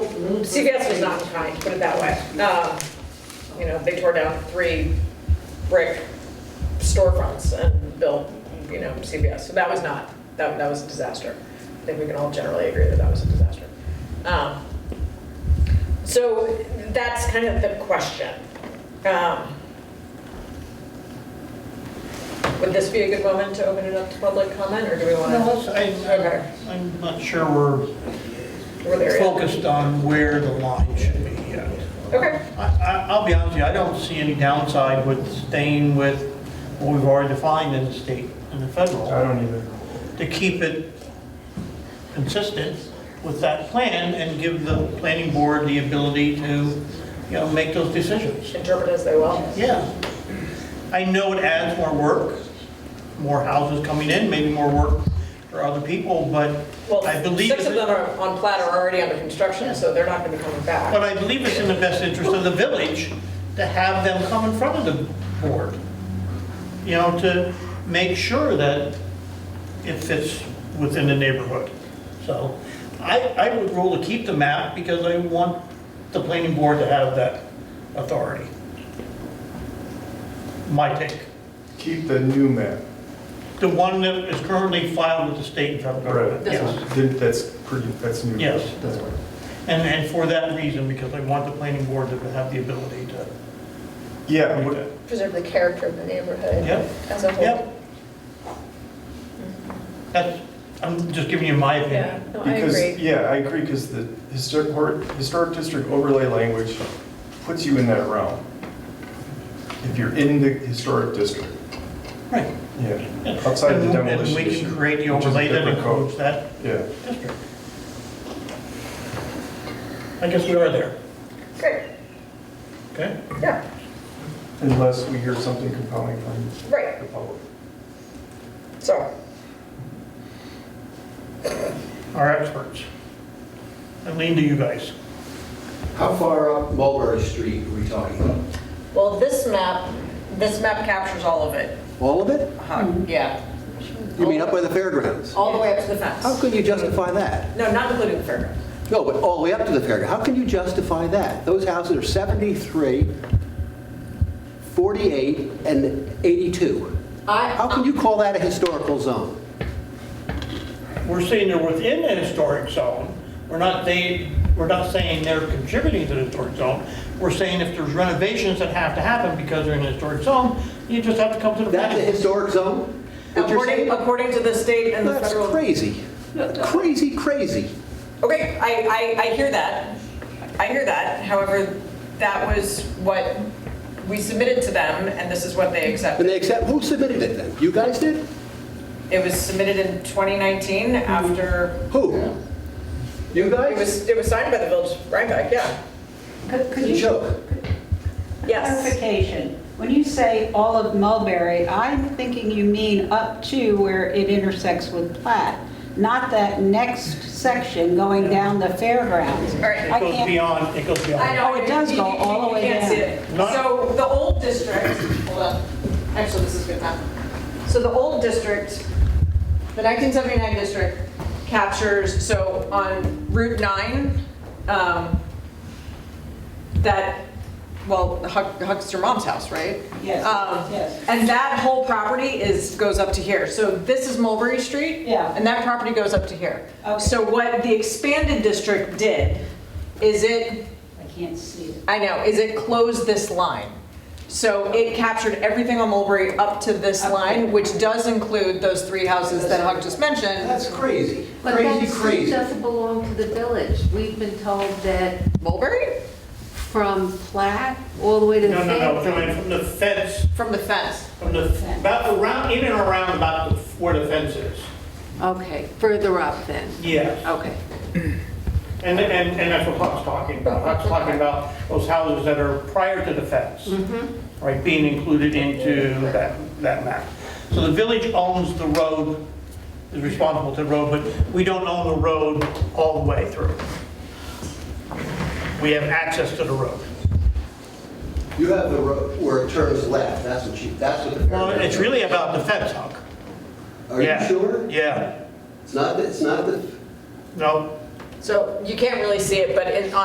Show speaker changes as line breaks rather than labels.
CVS was not kind, put it that way. Um, You know, they tore down three brick storefronts and built, you know, CVS. So that was not, that, that was a disaster. I think we can all generally agree that that was a disaster. Um, So that's kind of the question. Um, Would this be a good moment to open it up to public comment, or do we want to?
No, that's- I-
Okay.
I- I'm not sure we're
we're there yet?
focused on where the line should be yet.
Okay,
I- I- I'll be honest with you, I don't see any downside with staying with what we've already defined in the state and the
I
federal,
don't either.
to keep it consistent with that plan and give the planning board the ability to, you know, make those decisions.
interpret as they will.
Yeah. I know it adds more work, more houses coming in, maybe more work for other people, but
Well,
I believe
six of
that-
them are on plat are already under construction, so they're not going to be coming
But
back.
I believe it's in the best interest of the village to have them come in front of the board. You know, to make sure that it fits within the neighborhood. So I, I would rule to keep the map because I want the planning board to have that authority. My take.
Keep the new map.
The one that is currently filed with the state and federal government.
This
Yes.
Did- That's pretty, that's new.
Yes.
That's right.
And, and for that reason, because I want the planning board to have the ability to.
Yeah,
do
what-
that.
preserve the character of the neighborhood
Yep.
as a whole.
Yep. That's, I'm just giving you my
Yeah,
opinion.
no, I
because,
agree.
yeah, I agree, because the historic, or- historic district overlay language puts you in that realm. If you're in the historic district,
Right.
yeah, outside
And-
the demolition
And we can
issue,
create the
which is a
overlay that
different code.
includes that
Yeah.
district. I guess we are there,
Great,
okay?
yeah,
Unless we hear something compelling from
right,
the public.
so,
Our experts. I lean to you guys.
How far up Mulberry Street are we talking about?
well, this map, this map captures all of it. Uh-huh.
All of it?
Yeah,
You mean up by the fairgrounds?
Oh.
all the way up to the
How
fence.
can you justify that?
No, not including the fairgrounds.
No, but all the way up to the fairgrounds. How can you justify that? Those houses are 73, 48, and 82. How
I,
can you call that a historical zone?
We're saying they're within the historic zone. We're not, they, we're not saying they're contributing to the historic zone. We're saying if there's renovations that have to happen because they're in the historic zone, you just have to come to the.
That's a
planning board.
historic zone? What you're
according,
saying?
according to the state and the
That's
federal.
crazy. Crazy, crazy.
Okay, I, I, I hear that. I hear that. However, that was what we submitted to them, and this is what they accepted.
And they accept, who submitted it then? You guys did?
It was submitted in 2019 after,
Who? You
it
guys?
was, it was signed by the village of Rhinebeck, yeah.
Could could
It's a
you,
joke.
Yes.
clarification, when you say all of Mulberry, I'm thinking you mean up to where it intersects with Platt, not that next section going down the fairgrounds.
All right.
I
It goes
can't-
beyond, it goes beyond.
I know.
Oh, it does go all the way
You can't see
down.
it.
Not-
So the old district, hold on, actually, this is good enough. So the old district, the 1979 district captures, so on Route 9, um, that, well, Huck- Huck's your mom's house, right?
Yes,
Um,
yes.
And that whole property is, goes up to here. So this is Mulberry Street.
Yeah.
And that property goes up to here.
Okay.
So what the expanded district did is it
I can't see it.
I know, is it closed this line. So it captured everything on Mulberry up to this
Okay.
line, which does include those three houses that Huck just mentioned.
That's crazy,
But
crazy,
that street
crazy.
doesn't belong to the village. We've been told that
Mulberry?
from Platt all the way to the
No, no, no,
fairgrounds.
coming from the fence,
From the fence.
from the, about around, in and around about the- where the fence is.
Okay, further up then.
Yes.
Okay.
And, and, and that's what Huck's talking about. Huck's talking about those houses that are prior to the fence. Right, being included into that, that map. So the village owns the road, is responsible to the road, but we don't own the road all the way through. We have access to the road.
You have the road where it turns left. That's what you, that's what the
Well, it's really about the fence, Huck.
Are
Yeah.
you sure?
Yeah.
It's not, it's not the
No,
So you can't really see it, but in,